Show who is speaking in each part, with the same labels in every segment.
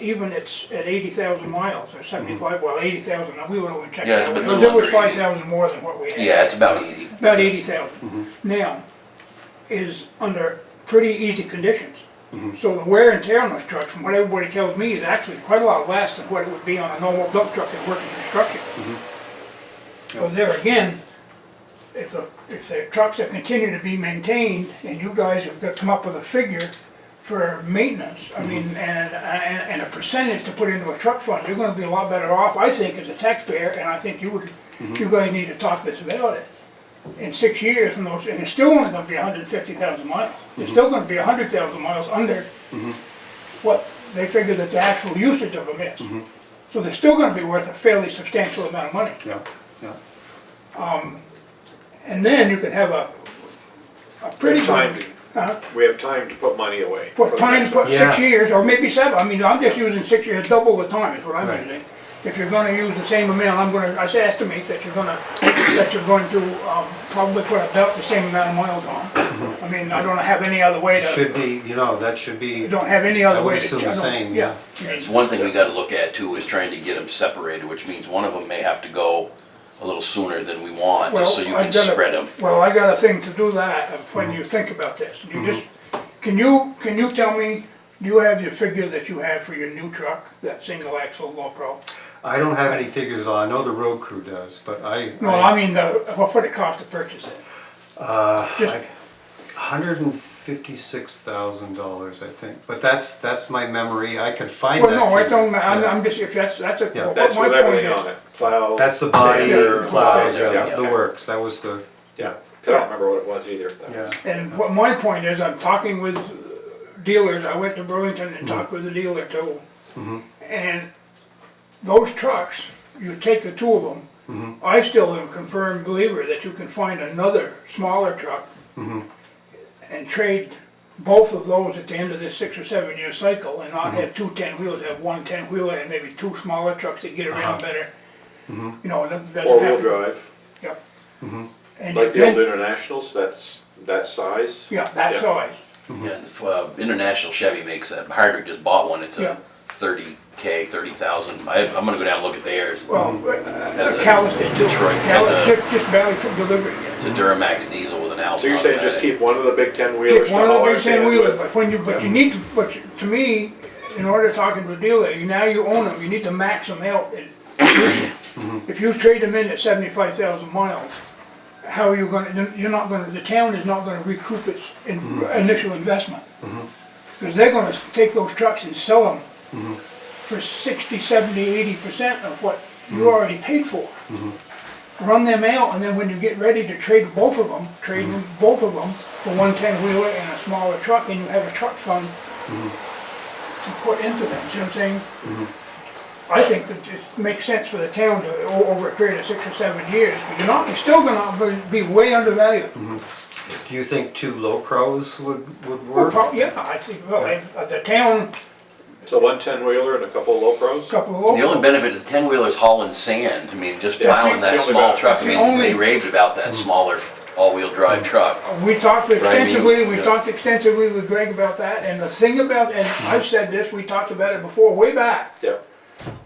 Speaker 1: even it's at eighty thousand miles or seventy-five, well, eighty thousand, we would only check
Speaker 2: Mm-hmm. Yeah, it's
Speaker 1: that.
Speaker 2: been a
Speaker 1: Because it
Speaker 2: little
Speaker 1: was
Speaker 2: under
Speaker 1: five
Speaker 2: 80.
Speaker 1: thousand more than what we had.
Speaker 2: Yeah, it's about eighty.
Speaker 1: About eighty thousand. Now, is under pretty easy conditions. So the wear and tear on those trucks, from what everybody tells me, is actually quite a lot less than what it would be on a normal dump truck that works in construction. So there again, if the, if the trucks are continue to be maintained, and you guys have got to come up with a figure for maintenance, I mean, and, and, and a percentage to put into a truck fund, you're gonna be a lot better off, I think, as a taxpayer, and I think you would, you guys need to talk this about it in six years, and those, and it's still only gonna be hundred and fifty thousand miles.
Speaker 3: Mm-hmm.
Speaker 1: It's still gonna be hundred thousand miles under what they figure that the actual usage of them
Speaker 3: Mm-hmm.
Speaker 1: is. So they're still gonna be worth a fairly substantial amount of money. Um,
Speaker 3: Yeah, yeah.
Speaker 1: And then you could have a, a pretty.
Speaker 4: Time.
Speaker 1: Huh?
Speaker 4: We have time to put money away. for
Speaker 1: What,
Speaker 4: the next
Speaker 1: time,
Speaker 4: one.
Speaker 1: put six
Speaker 3: Yeah.
Speaker 1: years, or maybe seven, I mean, I'm just using six years, double the time is what I'm
Speaker 3: Right.
Speaker 1: using. If you're gonna use the same amount, I'm gonna, I say estimate that you're gonna, that you're going to, um, probably put about the same amount of miles on. I mean, I don't have any other way
Speaker 3: It
Speaker 1: to,
Speaker 3: Mm-hmm. should be, you know, that should be,
Speaker 1: I don't have any other
Speaker 3: I would
Speaker 1: way to.
Speaker 3: assume the
Speaker 1: I don't-
Speaker 3: same,
Speaker 1: I mean,
Speaker 2: It's one thing we gotta look at too, is trying to get them separated, which means one of them may have to go a little sooner than we want,
Speaker 1: Well,
Speaker 2: just so you
Speaker 1: I've
Speaker 2: can
Speaker 1: got a-
Speaker 2: spread them.
Speaker 1: Well, I got a thing to do that, of
Speaker 3: Mm-hmm.
Speaker 1: when you think about this, you just, can you, can you tell me, do you have your figure that you have for your new truck, that single axle low pro?
Speaker 3: I don't have any figures at all, I know the road crew does, but I.
Speaker 1: No, I mean, the, what would it cost to purchase it?
Speaker 3: Uh, hundred and fifty-six thousand dollars, I think, but that's, that's my memory, I could find that.
Speaker 1: Well, no, I
Speaker 3: figure.
Speaker 1: don't, I'm,
Speaker 3: Yeah.
Speaker 1: I'm just, if that's, that's a,
Speaker 3: Yeah.
Speaker 1: what
Speaker 4: That's
Speaker 1: my
Speaker 4: with
Speaker 1: point
Speaker 4: everything
Speaker 1: is.
Speaker 4: on it, plow.
Speaker 3: That's the body,
Speaker 4: sander,
Speaker 3: plows,
Speaker 2: yeah,
Speaker 3: yeah,
Speaker 2: yeah.
Speaker 3: the works, that was the,
Speaker 4: Yeah, 'cause I don't remember what it was either. That
Speaker 3: yeah.
Speaker 4: was-
Speaker 1: And what my point is, I'm talking with dealers, I went to Burlington and talked with a dealer too. And those trucks, you take the two of them, I still am a confirmed believer that you can find another smaller truck and trade both of those at the end of this six or seven year cycle and not have two ten wheelers, have one ten wheeler and maybe two smaller trucks that get around better. You know, that doesn't
Speaker 4: Four-wheel
Speaker 1: have.
Speaker 4: drive,
Speaker 1: Yep. And
Speaker 4: like the
Speaker 1: then-
Speaker 4: old Internationals, that's, that size.
Speaker 1: Yeah, that size.
Speaker 4: Mm-hmm.
Speaker 2: Yeah, if, uh, International Chevy makes that, Hardwick just bought one, it's
Speaker 1: Yeah.
Speaker 2: a thirty K, thirty thousand, I, I'm gonna go down and look at theirs.
Speaker 1: Well,
Speaker 2: a-
Speaker 1: uh, Callis did too.
Speaker 2: Detroit
Speaker 1: Callis
Speaker 2: has a-
Speaker 1: just- just barely took delivery.
Speaker 2: It's a Duramax diesel with an Alcon.
Speaker 4: So you're saying
Speaker 2: on
Speaker 4: just
Speaker 2: it.
Speaker 4: keep one of the big ten-wheelers
Speaker 1: Take
Speaker 4: to
Speaker 1: one of
Speaker 4: haul
Speaker 1: the
Speaker 4: our
Speaker 1: big ten
Speaker 4: sand
Speaker 1: wheelers,
Speaker 4: with?
Speaker 1: but when you, but you need to, but you- to me, in order to talk to a dealer, you, now you own them, you need to max them out. and use them.
Speaker 2: Mm-hmm.
Speaker 1: If you trade them in at seventy-five thousand miles, how are you gonna, then you're not gonna, the town is not gonna recoup its in-
Speaker 2: Mm-hmm.
Speaker 1: initial investment. Cause they're gonna take those trucks and sell them
Speaker 2: Mm-hmm.
Speaker 1: for sixty, seventy, eighty percent of what
Speaker 2: Mm-hmm.
Speaker 1: you already paid for. run them out, and then when you get ready to trade both of them, trade
Speaker 2: Mm-hmm.
Speaker 1: both of them for one ten wheeler and a smaller truck, and you have a truck fund
Speaker 2: Mm-hmm.
Speaker 1: to put into them. See what I'm saying?
Speaker 2: Mm-hmm.
Speaker 1: I think that it makes sense for the town to o- over a period of six or seven years, but you're not you're still going to be way undervalued.
Speaker 2: Mm-hmm.
Speaker 3: Do you think two low pros would, would
Speaker 1: Well,
Speaker 3: work?
Speaker 1: prob- yeah, I think well, I- uh, the town
Speaker 4: So one ten-wheeler and a couple of low pros?
Speaker 1: couple of
Speaker 2: The only benefit of the ten wheelers hauling sand, I mean, just
Speaker 4: Yeah,
Speaker 2: plowing that
Speaker 4: that's the
Speaker 2: small
Speaker 4: only benefit. Mm-hmm.
Speaker 2: truck,
Speaker 1: That's
Speaker 2: I
Speaker 1: the
Speaker 2: mean, they
Speaker 1: only- Mm-hmm.
Speaker 2: raved about that smaller all-wheel drive truck.
Speaker 1: We talked extensively, we
Speaker 2: yeah.
Speaker 1: talked extensively with Greg about that, and the thing about, and
Speaker 2: Mm-hmm.
Speaker 1: I've said this, we talked about it before, way back.
Speaker 4: Yeah,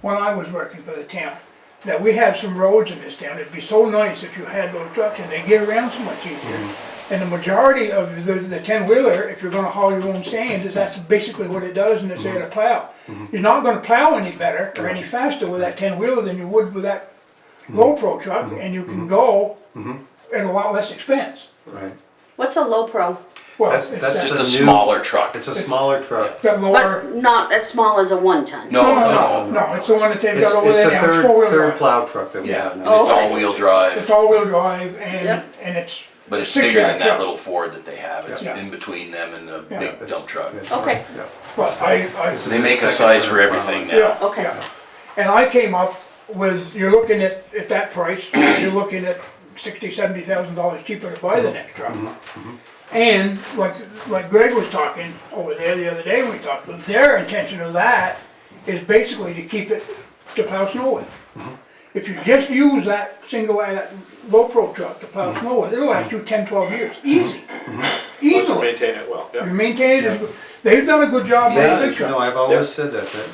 Speaker 1: when I was working for the town, that we have some roads in this town, it'd be so nice if you had those trucks and they get around so much easier.
Speaker 3: Mm-hmm.
Speaker 1: And the majority of the, the ten wheeler, if you're gonna haul your own sand, is that's basically what it does and it's there to
Speaker 3: Mm-hmm.
Speaker 1: plow. You're not gonna plow any better or any faster with that ten wheeler than you would with that
Speaker 3: Mm-hmm.
Speaker 1: low pro truck and you can go at a lot less expense.
Speaker 3: Right,
Speaker 5: What's a low pro?
Speaker 1: Well,
Speaker 3: That's-
Speaker 1: it's
Speaker 3: that's
Speaker 1: that,
Speaker 2: Just a
Speaker 3: a new-
Speaker 2: smaller truck.
Speaker 3: it's a smaller truck.
Speaker 1: that
Speaker 5: But
Speaker 1: lower,
Speaker 5: not as small as a one ton.
Speaker 2: No,
Speaker 1: no, no,
Speaker 2: no,
Speaker 1: no, it's the one that they've
Speaker 3: It's,
Speaker 1: got over
Speaker 3: it's
Speaker 1: there
Speaker 3: the
Speaker 1: now, it's four wheel
Speaker 3: third, third
Speaker 1: drive.
Speaker 3: plow truck that we
Speaker 2: yeah,
Speaker 3: have.
Speaker 2: and
Speaker 3: now.
Speaker 2: it's
Speaker 5: Oh, okay.
Speaker 2: all-wheel drive,
Speaker 1: It's all-wheel drive and,
Speaker 5: Yep.
Speaker 1: and it's.
Speaker 2: but it's
Speaker 1: six
Speaker 2: bigger than
Speaker 1: yard
Speaker 2: that
Speaker 1: truck.
Speaker 2: little Ford that they have, it's
Speaker 1: Yeah.
Speaker 2: in between them and the
Speaker 1: Yeah.
Speaker 2: big dump truck.
Speaker 3: It's-
Speaker 5: Okay.
Speaker 3: yeah.
Speaker 1: But I, I.
Speaker 3: This is
Speaker 2: They
Speaker 3: the
Speaker 2: make a
Speaker 3: second
Speaker 2: size for
Speaker 3: third
Speaker 2: everything
Speaker 3: plow.
Speaker 2: now.
Speaker 5: Okay.
Speaker 1: Yeah. And I came up with, you're looking at, at that price, you're looking at sixty, seventy thousand dollars cheaper to buy
Speaker 2: Mm-hmm.
Speaker 1: the next truck. And like, like Greg was talking over there the other day when we talked, but their intention of that is basically to keep it to plow snow with. If you just use that single, uh, that low pro truck to plow snow with, it'll last you 10, 12 years, easy,
Speaker 4: let's
Speaker 1: easily.
Speaker 4: maintain it well, yeah.
Speaker 1: You maintain it, as- they've done a good job with that big
Speaker 3: Yeah,
Speaker 1: truck.
Speaker 3: no, I've always said that, that